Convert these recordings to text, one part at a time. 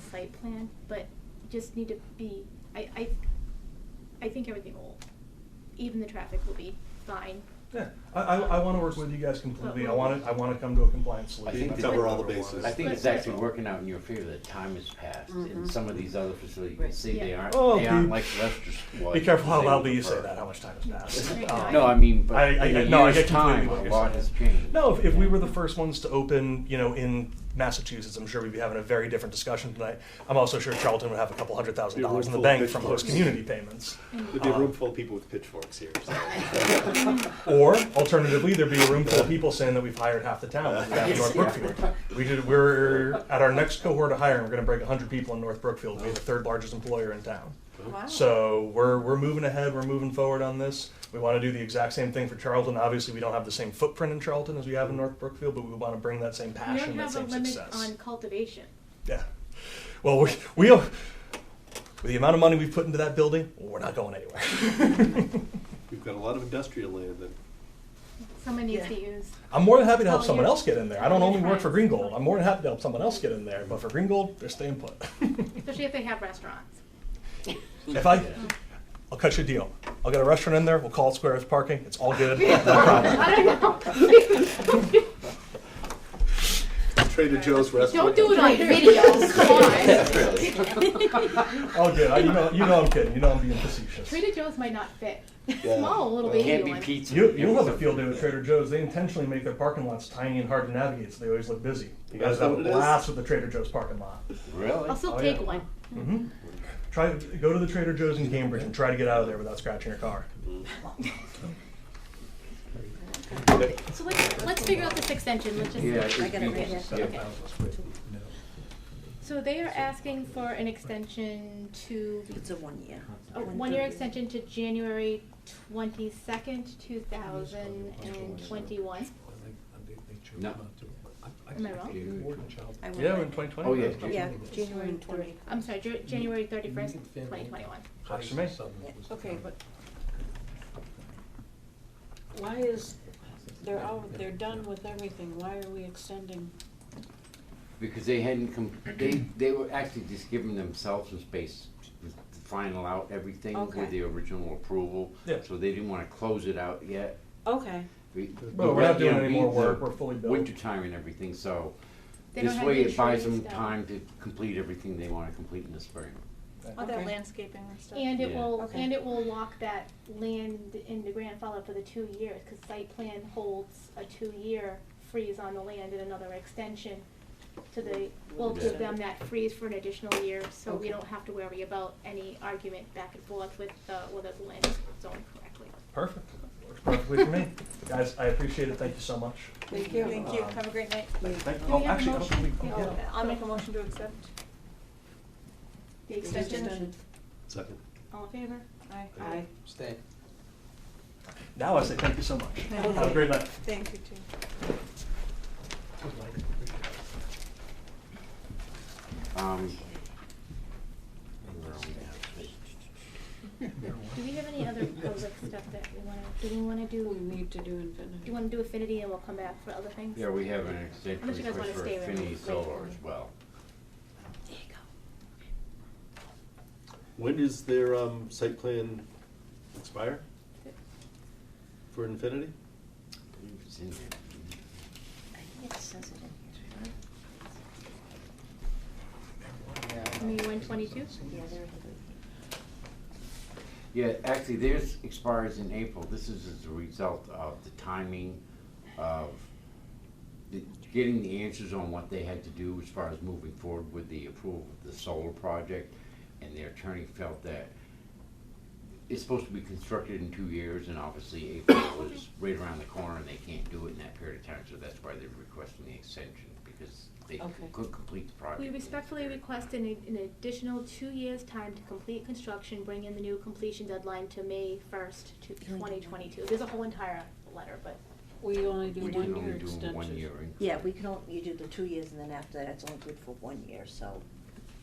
site plan, but just need to be, I, I, I think everything will, even the traffic will be fine. Yeah, I, I, I wanna work with you guys completely, I But- wanna, I wanna come to a compliance I solution. think That's that- what I Cover all the wanted. bases. I think it's But- Mm-hmm. actually working out in your favor that time has passed in some of these other facilities. You can Right. see they Yeah. aren't, Oh, they aren't be- like Leicester was. Be careful how they were loudly you say preferred. that, how much time has passed. Right, Um, No, I mean, I- but I- in I- a no, I year's get completely time, what a you're lot saying. has changed. No, if, if we Yeah. were the first ones to open, you know, in Massachusetts, I'm sure we'd be having a very different discussion tonight. I'm also sure Charlton would have a couple hundred thousand Be a room dollars in the full of bank from pitchforks. host community payments. Um, There'd be a room full of people with pitchforks here. so. Or alternatively, there'd be a room full of people saying that we've hired half the town. We're back in North Yes, yeah. Brookfield. We did, we're at our next cohort of hiring, we're gonna break hundred people in North Brookfield. We're the third largest employer in town. Wow. So we're, we're moving ahead, we're moving forward on this. We want to do the exact same thing for Charlton. Obviously, we don't have the same footprint in Charlton as we have in North Brookfield, but we want to bring that same We passion, don't that have a same limit success. on cultivation. Yeah. Well, we, we with the amount of money we've put into that building, we're not going anywhere. We've got a lot of industrial land that Someone needs Yeah. to use. I'm more than happy to help Oh, someone yeah. else get in there. I don't Yeah, only work right. for Green Gold. I'm more than happy to help someone else get in there, but for Green Gold, they're staying put. Especially if they have restaurants. if I, Yeah. I'll cut you a deal. I'll get a restaurant in there. We'll call it Square as parking. It's all good. No problem. I don't know. Trader Joe's Don't restaurant. do it on videos, come on. All good. I, you know, you know I'm kidding. You know I'm being facetious. Trader Joe's might not fit. Yeah. Small, little Well, baby Can't be one. pizza. You, It you'll was have a field day with yeah. Trader Joe's. They intentionally make their parking lots tiny and hard to navigate, so they always look busy. You guys That's have a what it is. blast with the Trader Joe's parking lot. Really? I'll still Oh, take yeah. one. hmm Try go to the Trader Joe's in Cambridge and try to get out of there without scratching your car. Mm-hmm. So let's, let's figure out this extension, let's just. Yeah, it's I got it right here. pizza. Yeah. So they are asking for an extension to, It's a Oh, one year. Uh-huh. a one-year extension to January twenty-second, two thousand and twenty-one. No. Am I wrong? I will. Yeah, we're in 2020. Oh, yeah. Yeah, January twenty. I'm sorry, Jan- January thirty-first, twenty twenty-one. Works for me. Okay, but why is, they're all, they're done with everything, why are we extending? Because they hadn't come, they, they were actually just giving themselves some space to final out everything with Okay. the original approval. Yeah. So they didn't wanna close it out yet. Okay, But we're not doing any more work. We're fully built. Winter time and everything, so They don't this have way the it buys insurance them done. time to complete everything they wanna complete in the spring. All that Okay. landscaping and stuff. And it Yeah. will, Okay. and it will lock that land in the grandfather for the two years, cause site plan holds a two-year freeze on the land and another extension. So they, will give them that freeze for an additional year, so we Okay. don't have to worry about any argument back and forth with, uh, whether the land is zoned correctly. Perfect. Works perfectly for me. Guys, I appreciate it. Thank you so much. thank you. Thank you, have a great night. Thank, Do we oh, have a actually, I don't motion? think we- Yeah. oh, Uh, I'll make a motion to accept. The We've just extension, done- Second. all in favor? Aye. Aye. Stay. yeah. Now I say thank you so much. Okay. Have a great night. Thank you too. Um, where are we at? Do we have any other public stuff that we wanna, do we wanna We do, need to do do infinity. you wanna do affinity and we'll come back for other things? Yeah, we have an How extension much you guys request wanna for stay with? Finney Wait. Solar as well. There you go. When does their um, site plan expire? For Infinity? I believe it's in there. I think it says it in here. I mean, one twenty-two? Yeah, there it Yeah, actually, theirs expires in April. This is as a result of the timing of the, getting the answers on what they had to do as far as moving forward with the approval of the solar project. And their attorney felt that it's supposed to be constructed in two years, and obviously April was right around the corner, and they can't do it in that period of time, so that's why they're requesting the extension, because they Okay. couldn't complete the project. We in that respectfully period. request an, an additional two years' time to complete construction, bring in the new completion deadline to May first to twenty twenty-two. There's a whole entire letter, but We only do We one did year only do extension. one year. Yeah, increment. we can only, you do the two years and then after that, it's only good for one year, so,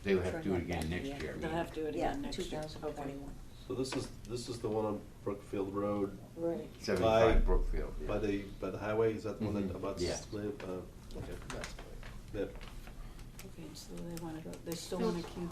They would have to do it Turn that again back, next yeah. year. I They'll mean. have to do it yeah, again next two year. thousand Okay. twenty-one. So this is, this is the one on Brookfield Road Right. By- Seventy-five Brookfield, yeah. Mm-hmm. by the, by the highway, is that the one that Mhm. abuts? Yeah. Lib- uh, Okay. That Okay, so they wanna go, they still wanna keep